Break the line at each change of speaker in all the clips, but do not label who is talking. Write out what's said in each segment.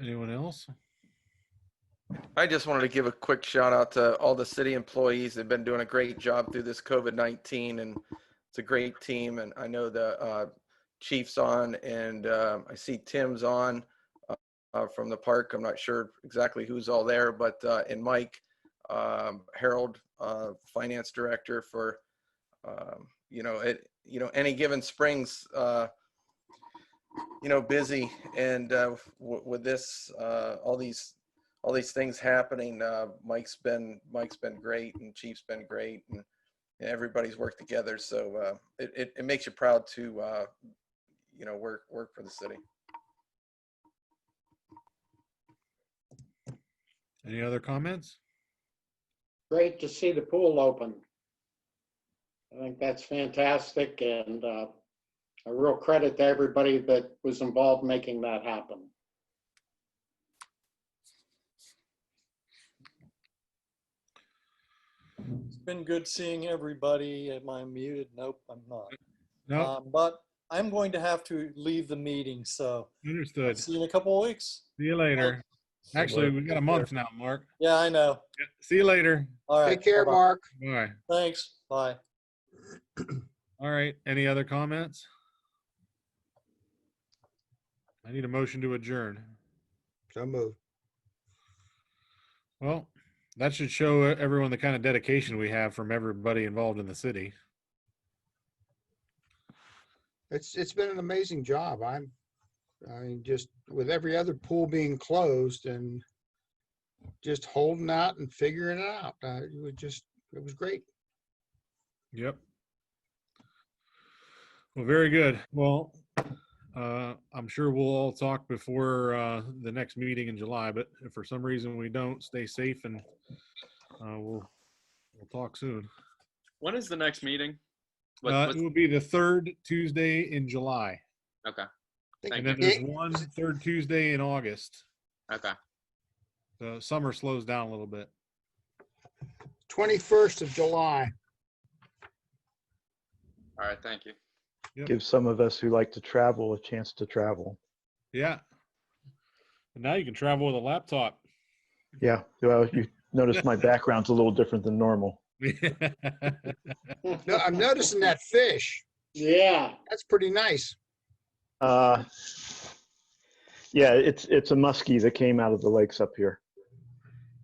Anyone else?
I just wanted to give a quick shout out to all the city employees. They've been doing a great job through this COVID-19 and it's a great team. And I know the uh, chief's on and uh, I see Tim's on uh, uh, from the park. I'm not sure exactly who's all there, but uh, and Mike um, Harold, uh, finance director for, um, you know, it, you know, any given springs, uh, you know, busy and uh, w- with this, uh, all these all these things happening. Uh, Mike's been Mike's been great, and Chief's been great, and, and everybody's worked together. So uh, it, it it makes you proud to uh, you know work work for the city.
Any other comments?
Great to see the pool open. I think that's fantastic and uh, a real credit to everybody that was involved making that happen.
It's been good seeing everybody. Am I muted? Nope, I'm not.
No,
Um, but I'm going to have to leave the meeting, so
understood. See
see you in a couple of weeks.
you later. Actually, we got a month now, Mark.
Yeah, I know.
Yeah, See you later.
All right.
Take care,
bye-bye.
Mark.
Bye.
Thanks. Bye.
All right. Any other comments? I need a motion to adjourn.
So moved.
Well, that should show everyone the kind of dedication we have from everybody involved in the city.
It's, it's been an amazing job. I'm, I mean, just with every other pool being closed and just holding out and figuring it out. Uh, it was just, it was great.
Yep. Well, very good. Well, uh, I'm sure we'll all talk before uh, the next meeting in July, but if for some reason we don't, stay safe and uh, we'll, we'll talk soon.
When is the next meeting? What,
Uh,
what's-
it will be the third Tuesday in July.
okay.
And
Thank
then
you.
there's
It-
one third Tuesday in August.
Okay.
The summer slows down a little bit.
21st of July.
All right. Thank you.
give some of us who like to travel a chance to travel.
Yeah. And now you can travel with a laptop.
Yeah, well, you notice my background's a little different than normal.
No, I'm noticing that fish.
Yeah,
That's pretty nice.
Uh, yeah, it's it's a muskie that came out of the lakes up here.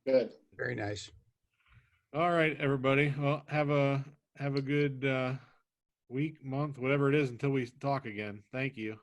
good.
Very nice.
All right, everybody. Well, have a have a good uh, week, month, whatever it is, until we talk again. Thank you.